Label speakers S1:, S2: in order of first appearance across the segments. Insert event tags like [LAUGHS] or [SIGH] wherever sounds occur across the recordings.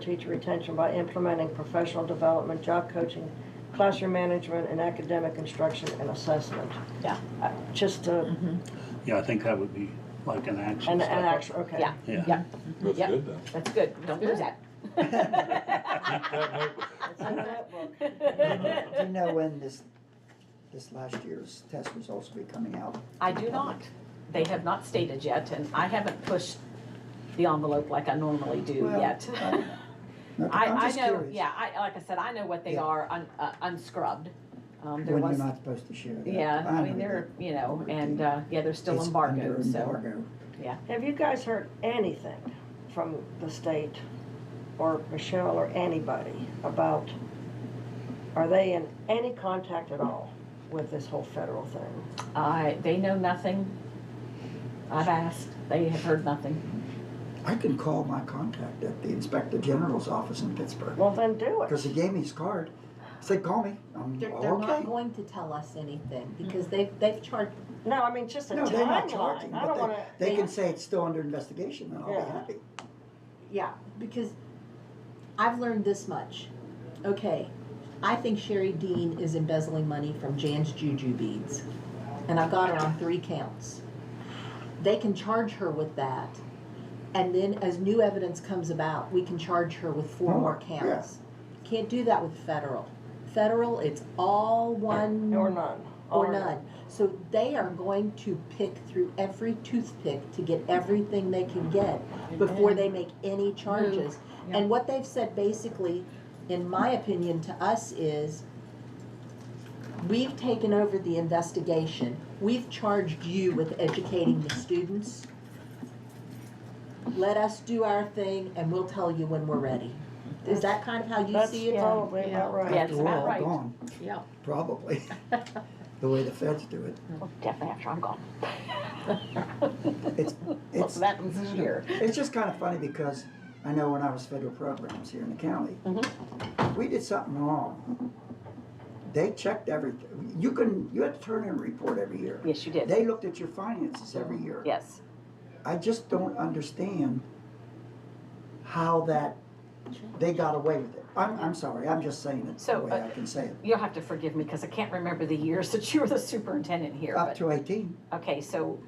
S1: teacher retention by implementing professional development, job coaching, classroom management, and academic instruction and assessment.
S2: Yeah.
S1: Uh, Just to,
S3: Yeah, I think that would be like an
S4: Mm-hmm.
S3: action.
S1: an, an
S3: step.
S1: action, okay.
S2: Yeah, [LAUGHS]
S3: Yeah.
S2: yeah,
S5: That's
S2: Yeah.
S5: good then.
S2: that's good. Don't lose
S6: [LAUGHS]
S2: that.
S5: That might-
S1: It's in that book.
S6: Do you know when this, this last year's test results will be coming out?
S2: I do not. They have not stated yet, and I haven't pushed the envelope like I normally do
S6: Well, [LAUGHS]
S2: yet.
S6: I don't know. No,
S2: I,
S6: I'm
S2: I
S6: just
S2: know,
S6: curious.
S2: yeah, I, like I said, I know what they
S6: Yeah.
S2: are, un, uh, unscrubbed. Um, there
S6: When you're
S2: was,
S6: not supposed to share that.
S2: yeah, I mean,
S6: know
S2: they're, you know,
S6: Everything.
S2: and, uh, yeah, they're
S6: that.
S2: still
S6: It's under
S2: embargoed, so.
S6: embargo.
S1: Have you guys heard anything from the state or Michelle or anybody about, are they in any contact at all with this whole federal thing?
S2: I, they know nothing. I've asked, they have heard nothing.
S6: I can call my contact at the Inspector General's office in Pittsburgh,
S1: Well, then do
S6: because
S1: it.
S6: he gave me his card. Said, call me. I'm,
S4: They're, they're not
S6: okay. Hmm.
S4: going to tell us anything because they've, they've charged,
S1: No, I mean, just a
S6: No, they're not charging,
S1: timeline. I
S6: but
S1: don't
S6: they-
S1: wanna,
S6: They
S4: Yeah.
S6: can say it's still under investigation, and I'll
S1: Yeah.
S6: be happy.
S4: yeah, because I've learned this much. Okay, I think Sherry Dean is embezzling money from Jan's Juju beads, and I've got her on three counts. They can charge her with that, and then as new evidence comes about, we can charge her with four
S6: More,
S4: more
S6: Oh, yeah.
S4: counts. Can't do that with federal. Federal, it's all one.
S1: or none.
S4: or none. So they are going to pick through every toothpick to get everything they can get before they make any charges.
S2: Yeah.
S4: And what they've said basically, in my opinion, to us is, we've taken over the investigation. We've charged you with educating the students. Let us do our thing and we'll tell you when we're ready. Is that kind of how you
S1: That's
S4: see it?
S1: probably about right.
S2: Yeah, it's
S6: After we're
S2: about
S6: all
S2: right.
S6: gone,
S2: Yeah. [LAUGHS]
S6: probably, the way the feds do it.
S2: Definitely after I'm gone.
S6: It's,
S2: Well,
S6: it's.
S2: that was here.
S6: It's just kind of funny because I know when I was federal programs here in the county,
S2: Mm-hmm.
S6: if we did something wrong. They checked everything. You couldn't, you had to turn in a report every year.
S2: Yes, you did.
S6: They looked at your finances every year.
S2: Yes.
S6: I just don't understand how that, they got away with it. I'm, I'm sorry, I'm just saying it the
S2: So,
S6: way
S2: uh,
S6: I can say it.
S2: You'll have to forgive me because I can't remember the years [LAUGHS] that you were the superintendent here.
S6: Up
S2: but-
S6: to eighteen,
S2: Okay, so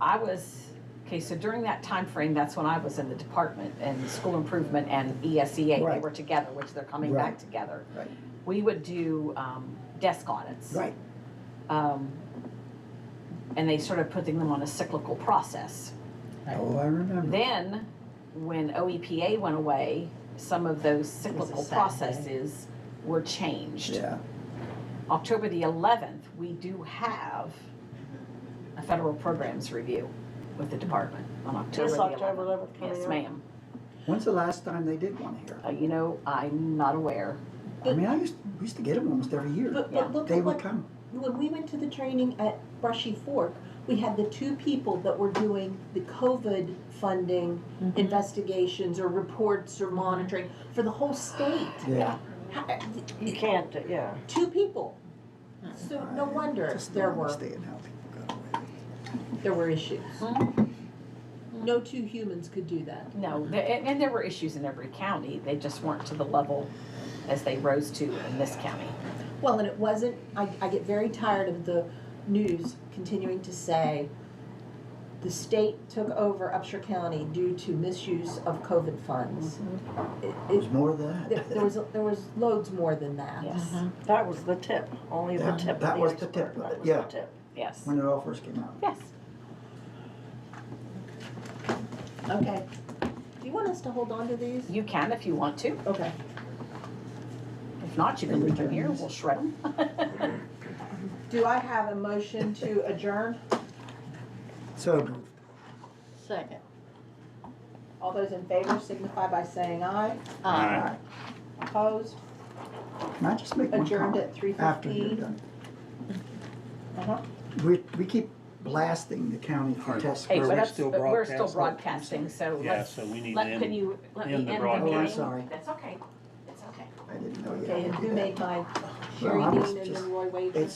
S2: I was, okay, so during that time frame, that's when I was in the department and school improvement and E ESEA, they
S6: Right.
S2: were together, which they're coming back
S6: Right.
S2: together.
S6: right,
S2: We would do um, desk audits.
S6: right,
S2: Um, And they started putting them on a cyclical process.
S6: oh, I remember.
S2: Then, when OEPA went away, some of those cyclical
S4: Saturday.
S2: processes were changed.
S6: Yeah,
S2: October the 11th, we do have a federal programs review with the department on October
S1: This
S2: the 11th.
S1: October eleventh coming
S2: Yes,
S1: up.
S2: ma'am.
S6: when's the last time they did one here?
S2: Uh, You know, I'm not aware.
S6: I mean, I used, we used to get them almost every year.
S4: But,
S2: Yeah.
S4: but look
S6: They
S4: at
S6: would
S4: what
S6: come.
S4: When we went to the training at Brushy Fork, we had the two people that were doing the COVID funding investigations or reports or monitoring for the whole state.
S6: Yeah.
S4: How-
S1: You can't, do- yeah.
S4: Two people. So no wonder
S6: Just
S4: there
S6: don't
S4: were,
S6: understand how people got away with it.
S4: there were issues. No two humans could do that.
S2: No, the- and and there were issues in every county. They just weren't to the level as they rose to in this county.
S4: Well, and it wasn't, I, I get very tired of the news continuing to say the state took over Upshur County due to misuse of COVID funds. It-
S6: It was
S4: it-
S6: more than
S4: there,
S6: that.
S4: there was, there was loads more than that.
S2: Yes,
S1: That was the tip, only the
S6: That-
S1: tip. of
S6: that
S1: the
S6: was the
S1: iceberg.
S6: tip of
S1: That
S6: it,
S1: was the
S6: yeah.
S1: tip.
S2: yes,
S6: When it all first came out.
S2: yes.
S4: Okay. Do you want us to hold on to these?
S2: You can if you want to.
S4: Okay.
S2: If not, you can leave them here. We'll shred them.
S4: Do I have a motion to adjourn?
S6: So,
S4: Second. All those in favor signify by saying aye.
S3: Aye.
S4: Opposed?
S6: can I just make one
S4: Adjourned
S6: comment?
S4: at Uh-huh. three
S6: After you're done. We, we keep blasting the county for
S3: Alright.
S6: test.
S2: Hey,
S3: Are
S2: but
S6: scores.
S3: we
S2: that's-
S3: still
S2: but we're still
S3: broadcasting?
S2: broadcasting, so
S3: Yeah,
S2: let's,
S3: so we need to
S2: let, can
S3: end-
S2: you, let me
S3: end
S2: end
S3: the
S2: the meeting?
S3: broadcast.
S6: Oh, I'm sorry.
S2: That's okay, that's okay.
S6: I didn't know you
S4: Okay,
S6: had
S4: and
S6: to do
S4: who
S6: that.
S4: made my Sherry
S6: I was
S4: Dean and
S6: just-
S4: then Roy Wade?
S6: it's